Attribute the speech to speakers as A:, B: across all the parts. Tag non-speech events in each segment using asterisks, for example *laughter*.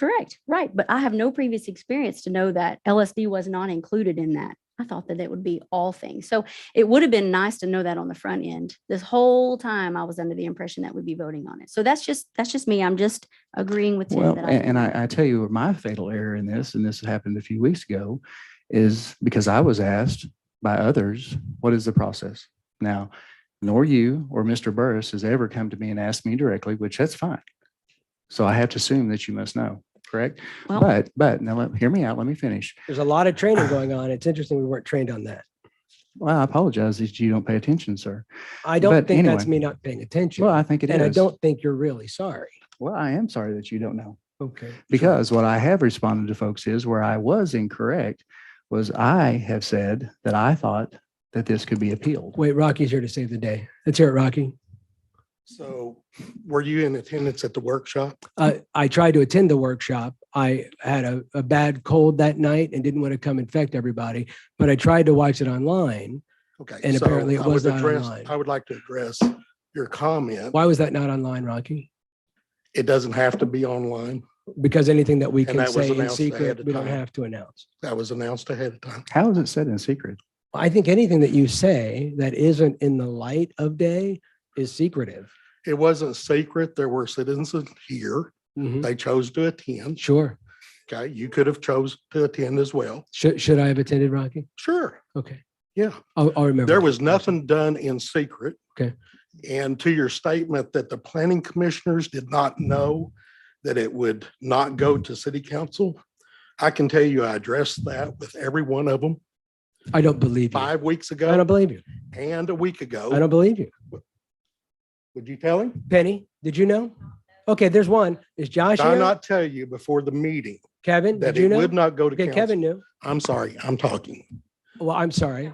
A: Correct, right. But I have no previous experience to know that LSD was not included in that. I thought that it would be all things. So it would have been nice to know that on the front end. This whole time I was under the impression that we'd be voting on it. So that's just, that's just me. I'm just agreeing with Tim.
B: Well,
A: that
B: a-
A: I-
B: and I, I tell you, where my fatal error in this, and this happened a few weeks ago, is because I was asked by others, what is the process? Now, nor you or Mr. Burris has ever come to me and asked me directly, which that's fine. So I have to assume that you must know, correct?
A: Well-
B: But, but now let, hear me out. Let me finish.
C: There's a lot
B: *sighs*
C: of training going on. It's interesting we weren't trained on that.
B: Well, I apologize that you don't pay attention, sir.
C: I don't
B: But
C: think that's
B: anyway.
C: me not paying attention.
B: Well, I think it is.
C: And I don't think you're really sorry.
B: Well, I am sorry that you don't know.
C: Okay.
B: Because what I have responded to folks is where I was incorrect was I have said that I thought that this could be appealed.
C: Wait, Rocky's here to save the day. Let's hear it, Rocky.
D: So were you in attendance at the workshop?
C: Uh, I tried to attend the workshop. I had a, a bad cold that night and didn't want to come infect everybody, but I tried to watch it online.
D: Okay.
C: And
D: so
C: apparently it
D: I would
C: was not
D: address-
C: online.
D: I would like to address your comment.
C: Why was that not online, Rocky?
D: It doesn't have to be online.
C: Because anything that we
D: And
C: can
D: that was
C: say in
D: announced ahead
C: secret,
D: of
C: we don't
D: time.
C: have to announce.
D: That was announced ahead of time.
B: How is it said in secret?
C: I think anything that you say that isn't in the light of day is secretive.
D: It wasn't secret. There were citizens here.
B: Mm-hmm.
C: Mhm.
D: They chose to attend.
C: Sure.
D: Okay. You could have chose to attend as well.
C: Should, should I have attended, Rocky?
D: Sure.
C: Okay.
D: Yeah.
C: I'll, I'll remember.
D: There
C: that.
D: was nothing done in secret.
C: Okay.
D: And to your statement that the planning commissioners did not know that it would not go to city council, I can tell you I addressed that with every one of them
C: I don't believe you. I
D: five weeks ago
C: don't believe you.
D: and a week
C: I
D: ago.
C: don't believe you.
D: Would you tell him?
C: Penny, did you know? Okay, there's one. Is Josh
D: Did I
C: here?
D: not tell you before the meeting
C: Kevin,
D: that
C: did you
D: it would
C: know?
D: not go to
C: Okay,
D: council?
C: Kevin knew.
D: I'm sorry, I'm talking.
C: Well, I'm sorry.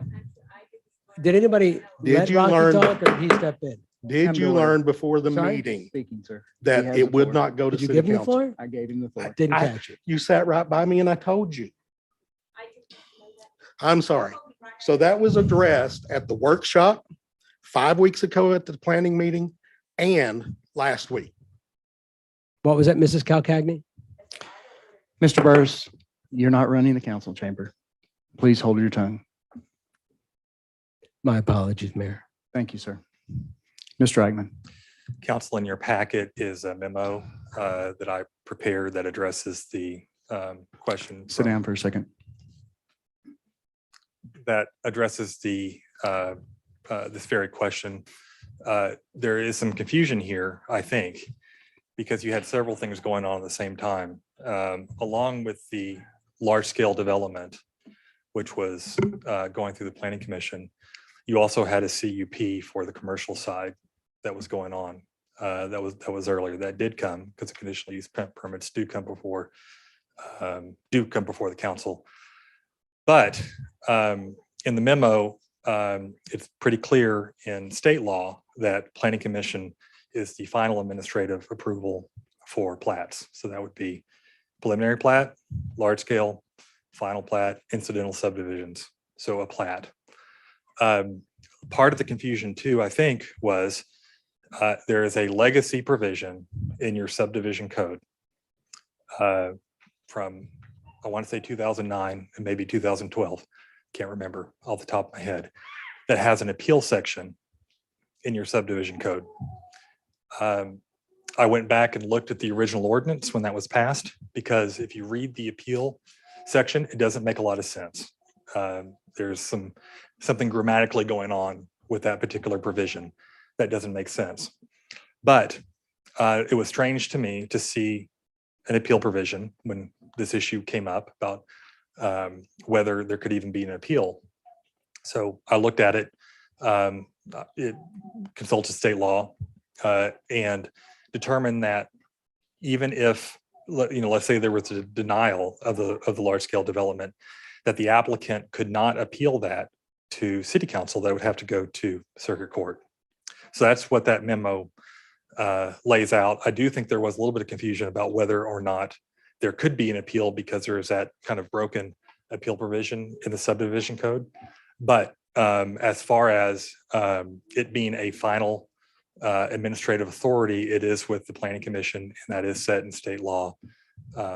C: Did anybody
D: Did
C: let
D: you
C: Rocky
D: learn-
C: talk or he stepped in?
B: Come
D: Did
B: to
D: you
B: order.
D: learn before the
C: Sorry?
D: meeting
B: Speaking, sir. He
D: that
B: has the
D: it would
B: floor.
D: not go to
C: Did you
D: city
C: give him the
D: council?
C: floor?
B: I gave him the floor.
C: Didn't
D: I-
C: catch it.
D: You sat right by me and I told you. I'm sorry. So that was addressed at the workshop, five weeks ago at the planning meeting and last week.
C: What was that, Mrs. Calcagney?
B: Mr. Burris, you're not running the council chamber. Please hold your tongue.
C: My apologies, Mayor.
B: Thank you, sir. Mr. Eichmann.
E: Council, in your packet is a memo uh, that I prepared that addresses the um, question.
B: sit
E: from-
B: down for a second.
E: That addresses the, uh, uh, this very question. Uh, There is some confusion here, I think, because you had several things going on at the same time. um, Along with the large-scale development, which was uh, going through the planning commission, you also had a CUP for the commercial side that was going on. uh, That was, that was earlier. That did come because the conditional use per- permits do come before, um, do come before the council. But um, in the memo, um, it's pretty clear in state law that planning commission is the final administrative approval for plats. So that would be preliminary plat, large scale, final plat, incidental subdivisions. So a plat. Um, Part of the confusion too, I think, was uh, there is a legacy provision in your subdivision code uh, from, I want to say 2009 and maybe 2012 can't remember off the top of my head, that has an appeal section in your subdivision code. Um, I went back and looked at the original ordinance when that was passed, because if you read the appeal section, it doesn't make a lot of sense. Um, There's some, something grammatically going on with that particular provision that doesn't make sense. But uh, it was strange to me to see an appeal provision when this issue came up about um, whether there could even be an appeal. So I looked at it, um, uh, it consulted state law, uh, and determined that even if, le- you know, let's say there was a denial of the, of the large scale development, that the applicant could not appeal that to city council, that would have to go to circuit court. So that's what that memo, uh, lays out. I do think there was a little bit of confusion about whether or not there could be an appeal because there is that kind of broken appeal provision in the subdivision code. But um, as far as um, it being a final uh, administrative authority, it is with the planning commission and that is set in state law.